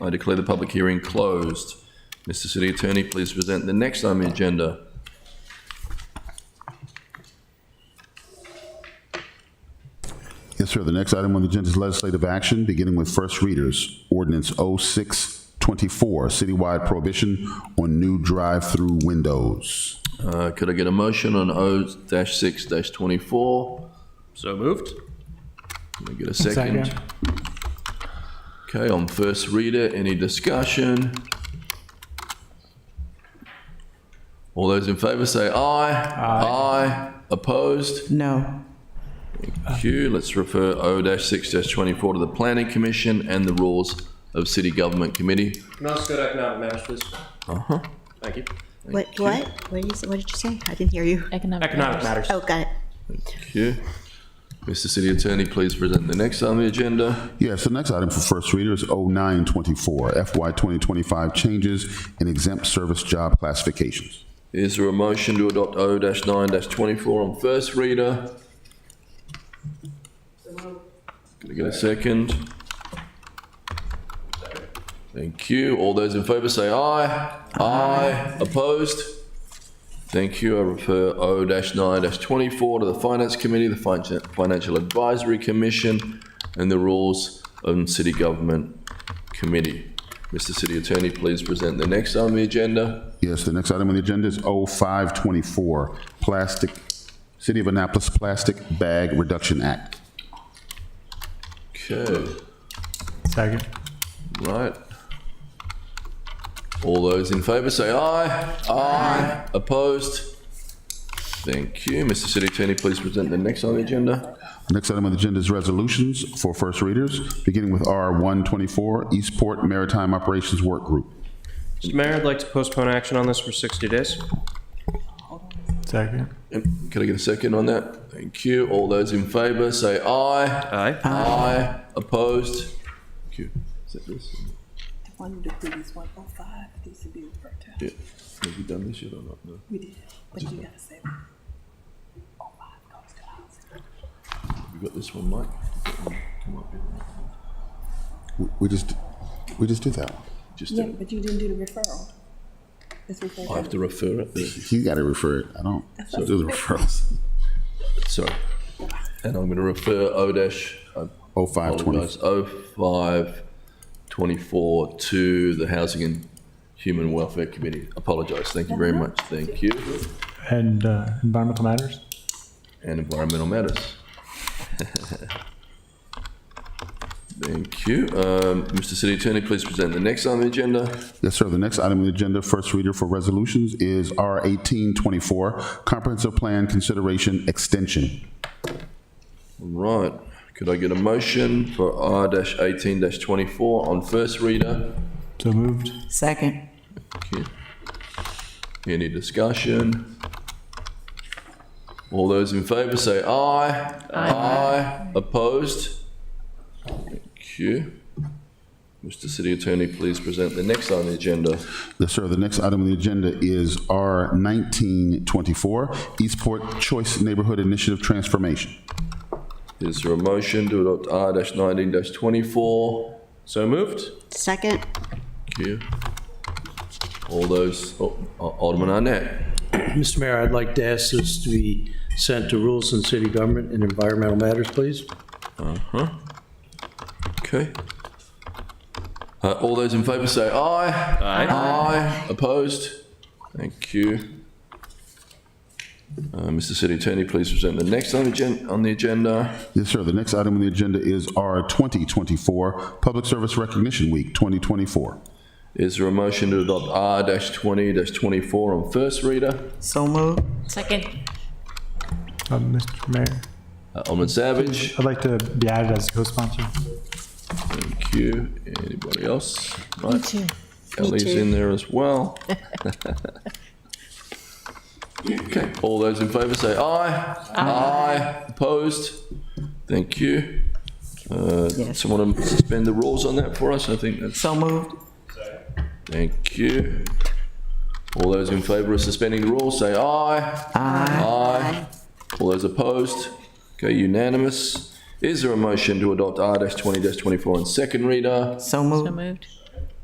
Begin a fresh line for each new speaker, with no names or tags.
I declare the public hearing closed. Mr. City Attorney, please present the next on the agenda.
Yes, sir. The next item on the agenda is legislative action, beginning with first readers. Ordinance 0624, citywide prohibition on new drive-through windows.
Uh, Could I get a motion on O-6-24?
So moved.
Can I get a second?
Second.
Okay, on first reader, any discussion? All those in favor say aye. Aye. Opposed?
No.
Q, let's refer O-6-24 to the Planning Commission and the Rules of City Government Committee.
Can I ask that economic matters, please?
Uh-huh.
Thank you.
What, what? What did, you, what did you say? I didn't hear you.
Economic.
Economic matters.
Oh, got it.
Q. Mr. City Attorney, please present the next on the agenda.
Yes, the next item for first reader is 0924, FY 2025 changes in exempt service job classifications.
Is there a motion to adopt O-9-24 on first reader? Can I get a second? Thank you. All those in favor say aye. Aye. Opposed? Thank you. I refer O-9-24 to the Finance Committee, the Fin- Financial Advisory Commission, and the Rules and City Government Committee. Mr. City Attorney, please present the next on the agenda.
Yes, the next item on the agenda is 0524, plastic, City of Annapolis Plastic Bag Reduction Act.
Okay,
Second.
right. All those in favour say aye. Aye. Opposed? Thank you. Mr City Attorney, please present the next on the agenda.
Next item on the agenda is resolutions for first readers, beginning with R124, Eastport Maritime Operations Work Group.
Mr. Mayor, I'd like to postpone action on this for 60 days.
Second.
Um, Can I get a second on that? Thank you. All those in favour say aye.
Aye.
Aye. Opposed? Thank you. Is that this?
One of the previous one oh five, these would be referred to.
Yeah. Have you done this yet or not? No.
We did, but you gotta say. Oh five goes to housing.
You got this one, Mike? Come up here.
We just, we just did that one.
Just,
Yeah,
do it.
but you didn't do the referral. It's
I have
referred
to
to.
refer it.
You got to refer it. I don't do the referrals.
Sorry. And I'm going to refer O dash, uh,
0524.
apologize, 0524 to the Housing and Human Welfare Committee. Apologize, thank you very much, thank you.
And uh, environmental matters?
And Environmental Matters. Thank you. Um, Mr. City Attorney, please present the next on the agenda.
Yes, sir. The next item on the agenda, first reader for resolutions, is R1824, Comprehensive Plan Consideration Extension.
Right, could I get a motion for R dash 18 dash 24 on first reader?
So moved.
Second.
Okay. Any discussion? All those in favor say aye. Aye. Opposed? Thank you. Mr. City Attorney, please present the next on the agenda.
Yes, sir. The next item on the agenda is R1924, Eastport Choice Neighborhood Initiative Transformation.
Is there a motion to adopt R nineteen twenty-four?
So moved.
Second.
Thank you. All those, oh, Alderman Arnett.
Mr. Mayor, I'd like to ask this to be sent to Rules and City Government and Environmental Matters, please.
Uh-huh. Okay. Uh, all those in favor say aye. Aye. Aye. Opposed? Thank you. Uh, Mr. City Attorney, please present the next on the agen- on the agenda.
Yes, sir. The next item on the agenda is R2024, Public Service Recognition Week 2024.
Is there a motion to adopt R twenty twenty-four on first reader?
So moved.
Second.
Uh, Mr. Mayor,
Uh, Alderman Savage,
I'd like to be added as a co-sponsor.
thank you. Anybody else?
Me
Right.
too.
Ellie's
too.
in there as well. Okay, all those in favor say aye. Aye. Opposed? Thank you. Uh,
Yes.
Someone to suspend the rules on that for us, I think that's,
So moved.
thank you. All those in favor of suspending the rules, say aye. Aye. All those opposed? Okay, unanimous. Is there a motion to adopt R twenty twenty-four on second reader?
So
So
moved.
moved.